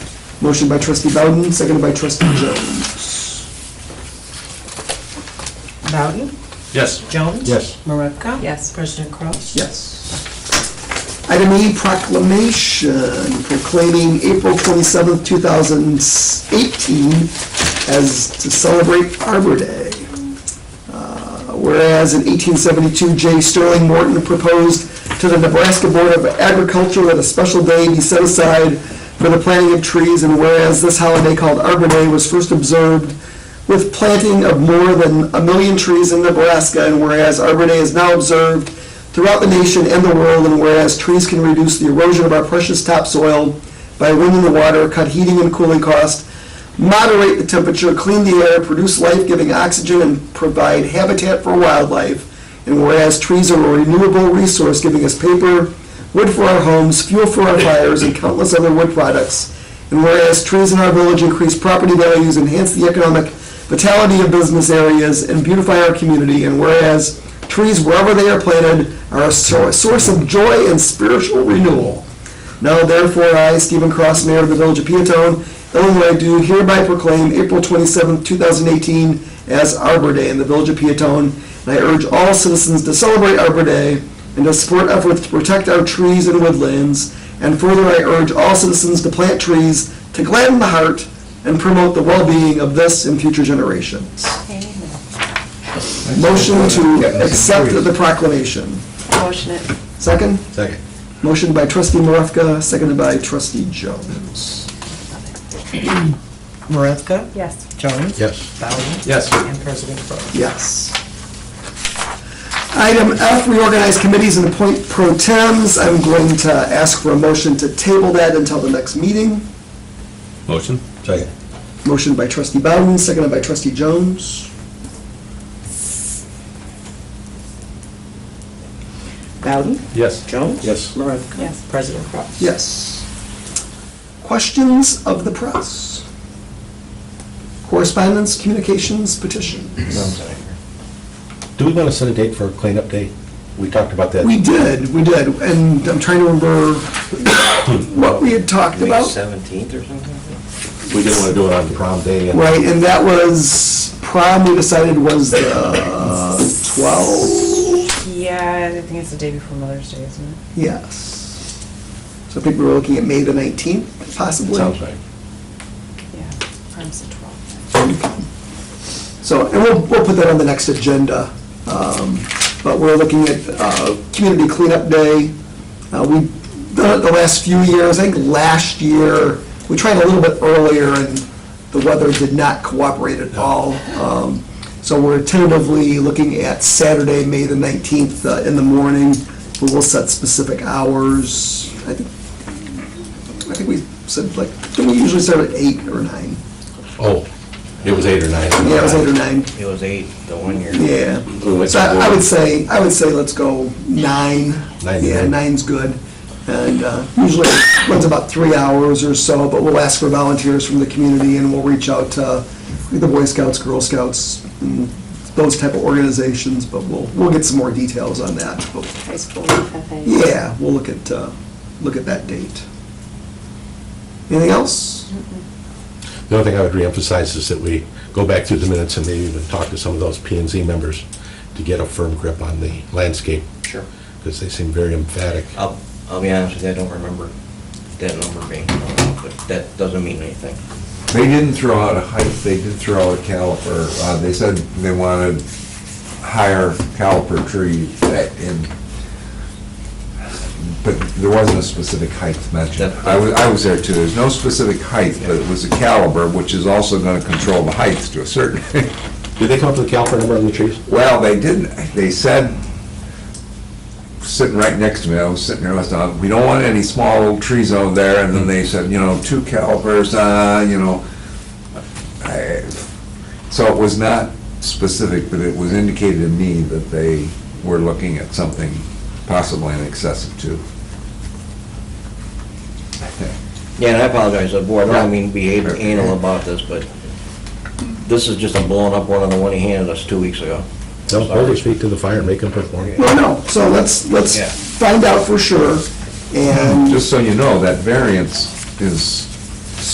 Motion by trustee Bowden, seconded by trustee Jones. Bowden? Yes. Jones? Yes. Marevka? Yes. President Cross? Yes. Item E, proclamation proclaiming April 27th, 2018 as to celebrate Arbor Day. Uh, Whereas in 1872, J. Sterling Morton proposed to the Nebraska Board of Agriculture that a special day be set aside for the planting of trees, and whereas this holiday called Arbor Day was first observed with planting of more than a million trees in Nebraska, and whereas Arbor Day is now observed throughout the nation and the world, and whereas trees can reduce the erosion of our precious topsoil by winning the water, cut heating and cooling costs, moderate the temperature, clean the air, produce life-giving oxygen, and provide habitat for wildlife, and whereas trees are a renewable resource giving us paper, wood for our homes, fuel for our fires, and countless other wood products, and whereas trees in our village increase property values, enhance the economic vitality of business areas, and beautify our community, and whereas trees wherever they are planted are a sor- source of joy and spiritual renewal. Now therefore, I, Stephen Cross, Mayor of the Village of Peatone, Illinois, do hereby proclaim April 27, 2018 as Arbor Day in the Village of Peatone, and I urge all citizens to celebrate Arbor Day and to support efforts to protect our trees and woodlands, and further, I urge all citizens to plant trees to gladden the heart and promote the well-being of this and future generations. Motion to accept the proclamation. Motion it. Second? Second. Motion by trustee Marevka, seconded by trustee Jones. Marevka? Yes. Jones? Yes. Bowden? Yes. And President Cross? Yes. Item F, reorganize committees and appoint pro tems. I'm going to ask for a motion to table that until the next meeting. Motion? Second. Motion by trustee Bowden, seconded by trustee Jones. Bowden? Yes. Jones? Yes. Marevka? Yes. President Cross? Yes. Questions of the press? Correspondence, communications, petitions? Do we want to set a date for cleanup day? We talked about that. We did, we did, and I'm trying to remember what we had talked May about. seventeenth or something? We didn't want to do it on prom day and. Right, and that was, prom we decided was the 12, Yeah, I think it's the day before Mother's Day, isn't it? yes. So I think we were looking at May the 19th, possibly. Sounds right. Yeah. Prime's the 12th. So, and we'll, we'll put that on the next agenda. Um, But we're looking at uh, Community Cleanup Day. Uh, We've done it the last few years, I think last year, we tried a little bit earlier and the weather did not cooperate at all. Um, So we're tentatively looking at Saturday, May the 19th uh, in the morning. We will set specific hours. I think, I think we said like, don't we usually start at eight or nine? Oh, it was eight or nine. Yeah, it was eight or nine. It was eight, the one year. Yeah, We went so I I to- would say, I would say let's go nine. Nine's Yeah, good. nine's good. And uh, usually it runs about three hours or so, but we'll ask for volunteers from the community and we'll reach out to the Boy Scouts, Girl Scouts, and those type of organizations, but we'll, we'll get some more details on that. But High school FFA. Yeah, we'll look at, uh, look at that date. Anything else? The only thing I would reemphasize is that we go back through the minutes and maybe even talk to some of those P and Z members to get a firm grip on the landscape, Sure. because they seem very emphatic. I'll, I'll be honest with you, I don't remember that number being, thrown out, but that doesn't mean anything. They didn't throw out a height, they did throw out a caliper. Uh, They said they wanted higher caliper trees that in, but there wasn't a specific height mentioned. I was, I was there too, there's no specific height, but it was a caliber, which is also gonna control the heights to a certain. Did they come up with a caliper number on the trees? Well, they didn't, they said, sitting right next to me, I was sitting there, I was, uh, we don't want any small little trees over there, and then they said, you know, two calipers, uh, you know. I- So it was not specific, but it was indicated to me that they were looking at something possibly in excess of two. Yeah, and I apologize to the board, I don't mean to be an- anal about this, but this is just a blown up one on the one he handed us two weeks ago. No, hold his feet to the fire and make them perform. Well, no, so let's, let's Yeah. find out for sure and. Just so you know, that variance is